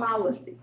policy.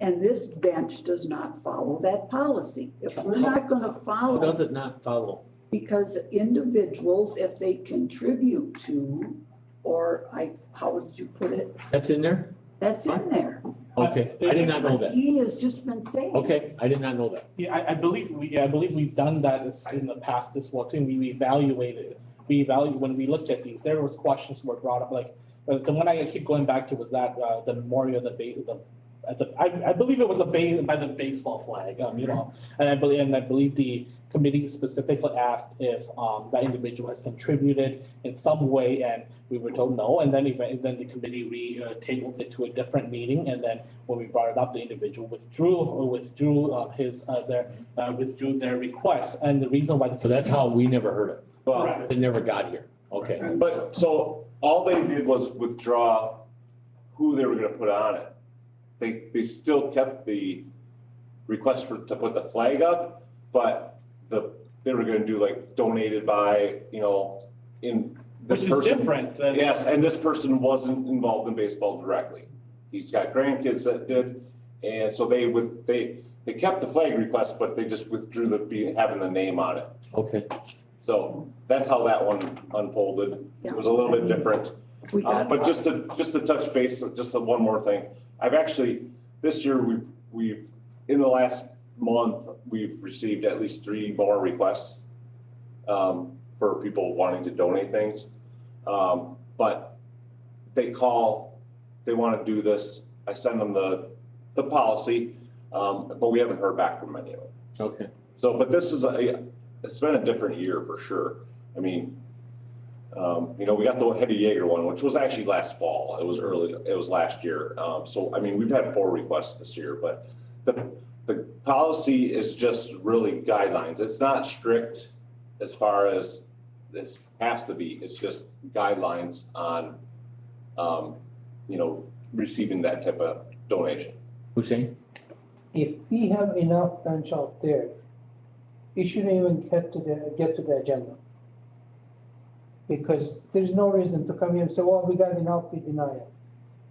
And this bench does not follow that policy. If we're not gonna How follow, does it not follow? because individuals, if they contribute to, or I, how would you put it? That's in there? That's in there. Okay, I did not know that. He has just been saying. Okay, I did not know that. Yeah, I, I believe we, I believe we've done that is- in the past as well, too. We evaluated, we evaluate, when we looked at these, there was questions were brought up, like, uh, the one I keep going back to was that, uh, the memorial, the ba- the, at the, I, I believe it was a ba- by the baseball flag, um, you know? And I believe, and I believe the committee specifically asked if, um, that individual has contributed in some way, and we were told no, and then even, then the committee re, uh, tabled it to a different meeting, and then when we brought it up, the individual withdrew, or withdrew uh, his, uh, their, uh, withdrew their request, and the reason why. the- So that's how we never heard it. Well, Correct. It never got here. Okay, but so all they did was withdraw who they were gonna put on it. They, they still kept the request for, to put the flag up, but the, they were gonna do like donated by, you know, in Which this is person. different than. Yes, and this person wasn't involved in baseball directly. He's got grandkids that did, and so they with, they, they kept the flag request, but they just withdrew the, be- having the name on it. okay. So that's how that one unfolded. It was a little bit different. We Uh, got- But just to, just to touch base, just a- one more thing. I've actually, this year, we've, we've, in the last month, we've received at least three more requests um, for people wanting to donate things. Um, But they call, they want to do this. I send them the, the policy, um, but we haven't heard back from any of them. Okay, So, but this is a, it's been a different year for sure. I mean, um, you know, we got the Hetty Jaeger one, which was actually last fall. It was early, it was last year. Um, so, I mean, we've had four requests this year, but the, the policy is just really guidelines. It's not strict as far as this has to be. It's just guidelines on, um, you know, receiving that type of donation. Hussein? if we have enough bench out there, it shouldn't even get to the, get to the agenda. Because there's no reason to come here and say, well, we got enough, we deny it.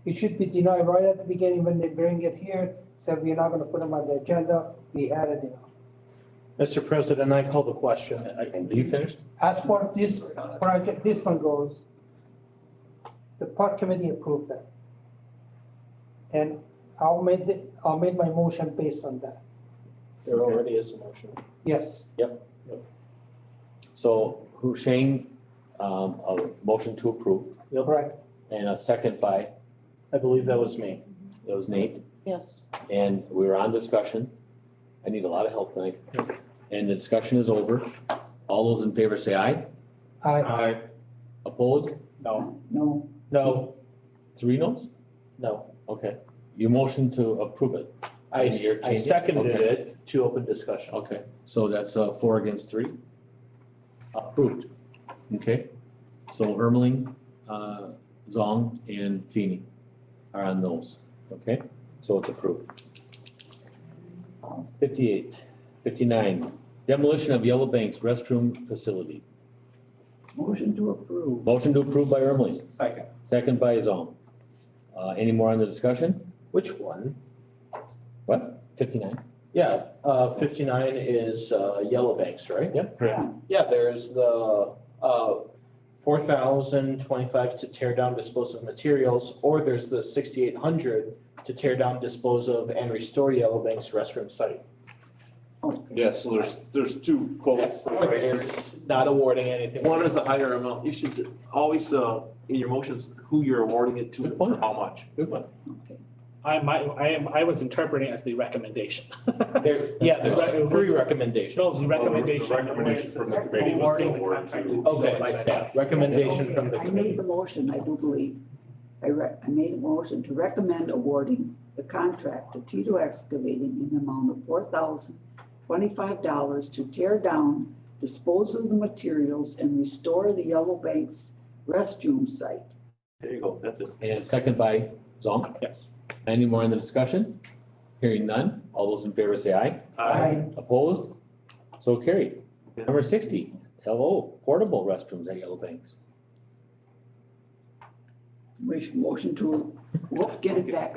It should be denied right at the beginning when they bring it here, say we're not gonna put them on the agenda, we added enough. Mr. President, I call the question. Are you finished? As for this project, this one goes, the park committee approved that. And I'll make, the- I'll make my motion based on that, There already is a motion. yes. So Hussein, um, a motion to approve Correct. and a second by, I believe that was me. that was Nate. Yes. And we were on discussion. I need a lot of help tonight. And the discussion is over. All those in favor say aye. I, Aye. Opposed? No, No, no, Three noes? no. Okay. You motion to approve it. I, And you're I changing? seconded Okay. it to open discussion. Okay, so that's uh four against three. Approved. Okay, so Ermeling, uh, Zong and Feeny are on those, okay? So it's approved. Fifty-eight, fifty-nine, demolition of Yellow Bank's restroom facility. motion to approve. Motion to approve by Ermeling, Second. second by Zong. Uh, any more on the discussion? Which one? What? Fifty-nine? Yeah, uh, fifty-nine is, uh, Yellow Banks, right? Yep. Correct. Yeah, there's the, uh, four thousand twenty-five to tear down, dispose of materials, or there's the sixty-eight hundred to tear down, dispose of, and restore Yellow Banks restroom site. Yeah, so there's, there's two quotes. One is not awarding anything. One is a higher amount, you should always, uh, in your motions, who you're awarding it to, Good point. and how much. Good one. I, my, I am, I was interpreting as the recommendation. There, yeah, there's three recommendations. Shows the recommendation. The recommendation from the committee was to Awarding the award contract. to- Okay, my staff, recommendation from the I made committee. the motion, I do believe. I re, I made a motion to recommend awarding the contract to Tito Excavating in the amount of four thousand twenty-five dollars to tear down, dispose of the materials, and restore the Yellow Banks restroom site. There you go, that's it. And second by Zong. Yes. Any more in the discussion? Hearing none, all those in favor say aye. Aye. Opposed? So carried. Number sixty, hello, portable restrooms at Yellow Banks. Wish motion to We'll get it back up.